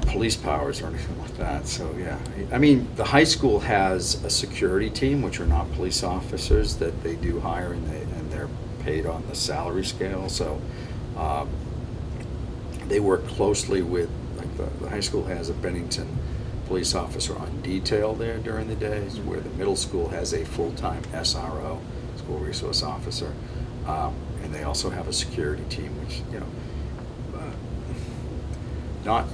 police powers or anything like that, so, yeah. I mean, the high school has a security team, which are not police officers, that they do hire and they, and they're paid on the salary scale, so, um, they work closely with, like, the, the high school has a Bennington police officer on detail there during the days, where the middle school has a full-time SRO, school resource officer. Um, and they also have a security team, which, you know, uh, not,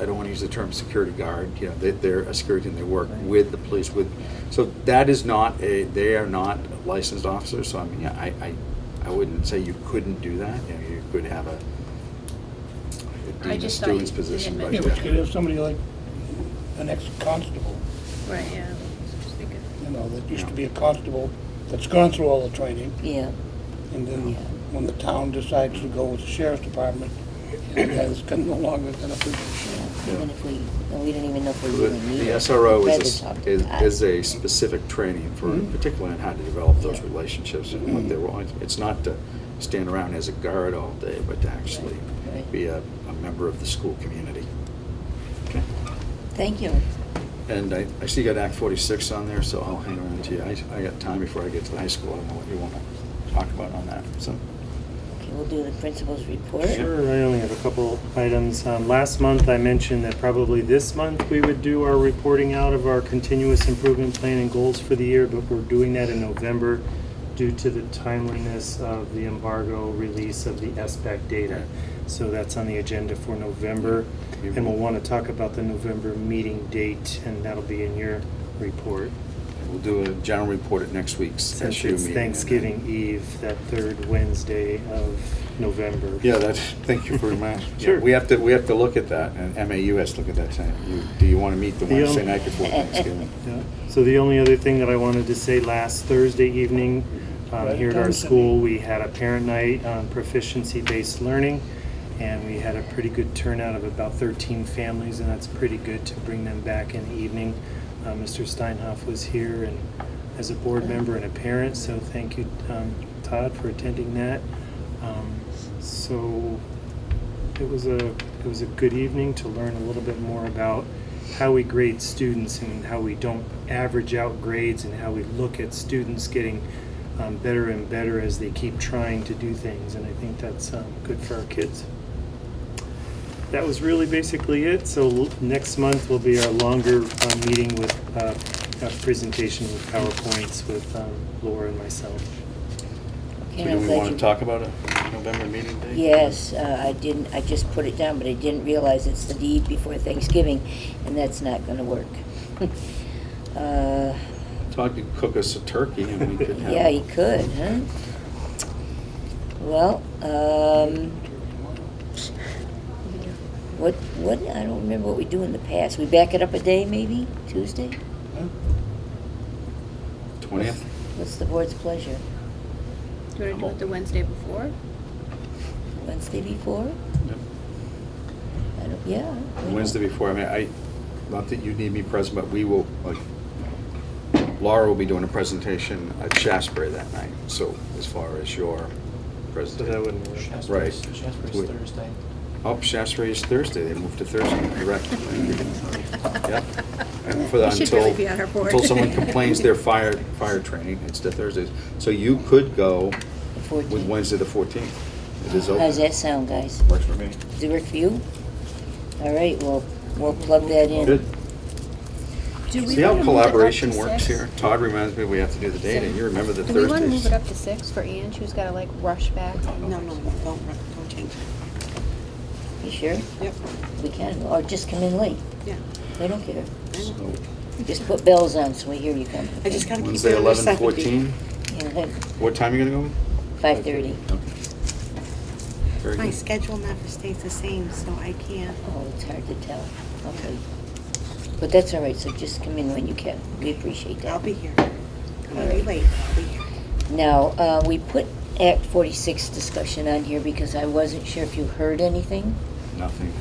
I don't want to use the term security guard, you know, they, they're a security and they work with the police, with, so that is not a, they are not licensed officers, so I mean, I, I, I wouldn't say you couldn't do that, you know, you could have a a I dean of just thought students you didn't position, but. mention Yeah, that. but you could have somebody like an ex-constable, Right, yeah. I was thinking. you know, that used to be a constable, that's gone through all the training, Yeah, and then when the town decides to go with the sheriff's department, the guy's gonna no longer gonna be, yeah, even if we, and we didn't even know if we The really needed. the it. SRO Rather is, a talk s- to is, us. Mm-hmm. is a specific training for, Mhm. particularly on how to develop those Yeah. Mm-hmm. relationships and what they want. It's not to stand around as a guard all day, but to actually Right, right. be a, a member of the school community. Okay. Thank you. And I, I see you got Act forty-six on there, so I'll hang around to you. I, I got time before I get to the high school. I don't know what you wanna talk about on that, so. Okay, we'll do the principal's report. Sure, I only have a couple items. Um, Last month, I mentioned that probably this month, we would do our reporting out of our continuous improvement plan and goals for the year, but we're doing that in November due to the timeliness of the embargo release of the SBAC data. So that's on the agenda for November, and we'll want to talk about the November meeting date, and that'll be in your report. We'll do a general report at next week's Since SU meeting. it's and then- Thanksgiving Eve, that third Wednesday of November. Yeah, that's, thank you for reminding. yeah, Sure. We have to, we have to look at that, and MAU has to look at that, saying, you, do you want to meet the The, um, Wednesday night before Thanksgiving? Yeah. So the only other thing that I wanted to say, last Thursday evening, um, Right, here at our done, school, we had a parent night on proficiency-based learning, and we had a pretty good turnout of about 13 families, and that's pretty good to bring them back in the evening. Uh, Mr. Steinhoff was here and as a board member and a parent, so thank you, um, Todd, for attending that. Um, So it was a it was a good evening to learn a little bit more about how we grade students and how we don't average out grades and how we look at students getting um, better and better as they keep trying to do things and I think that's um, good for our kids. That was really basically it. So l- next month will be our longer uh, meeting with uh, a presentation with PowerPoints with um, Laura and myself. Okay, So I'm do we glad want to you- talk about a November meeting date? Yes, uh, I didn't, I just put it down, but I didn't realize it's the eve before Thanksgiving, and that's not gonna work. Uh, Todd could cook us a turkey and we could have. Yeah, you could, huh? Well, um, what, what, I don't remember what we do in the past. We back it up a day, maybe, Tuesday? Twentieth? What's the board's pleasure? Do you want to do it the Wednesday before? Wednesday before? I don't, yeah. why not? Wednesday before, I mean, I, not that you need me present, but we will, like, Laura will be doing a presentation at Shasbury that night, so as far as your So presentation. that wouldn't work. Right. Shasbury's, Shasbury's Wait. Thursday. Oh, Shasbury is Thursday, they moved to Thursday, correct. Yeah. And for the- You should until- really be on our board. Until someone complains their fire, fire training, it's the Thursdays. So you could go The with 14th. Wednesday the 14th. It is How's open. that sound, guys? Works for me. Does it work for you? All right, well, we'll plug that in. Good. Do we See how wanna move it up to collaboration works six? here? Todd reminds me we have to do the data. You remember the Do we want to move it Thursdays. up to six for Ange, who's got to like rush back? No, no, don't, run- don't change it. You sure? Yep, We can, or just come in late. yeah. They don't care. So Just put bells on so we hear you come. I just gotta keep Wednesday, it under 11, seventy. 14. What time are you going to Five thirty. go? Okay. Very My good. schedule never stays the same, so I can't. Oh, it's hard to tell. Okay. But that's all right, so just come in when you can. We appreciate that. I'll be here. I'm gonna be late, but I'll be here. Now, uh, we put Act forty-six discussion on here because I wasn't sure if you heard anything. Nothing.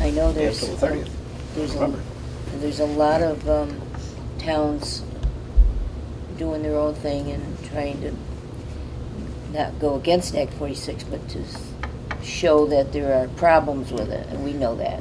I know there's. um, till the 30th, There's a, November. there's a lot of, um, towns doing their own thing and trying to not go against Act forty-six, but to s- show that there are problems with it, and we know that.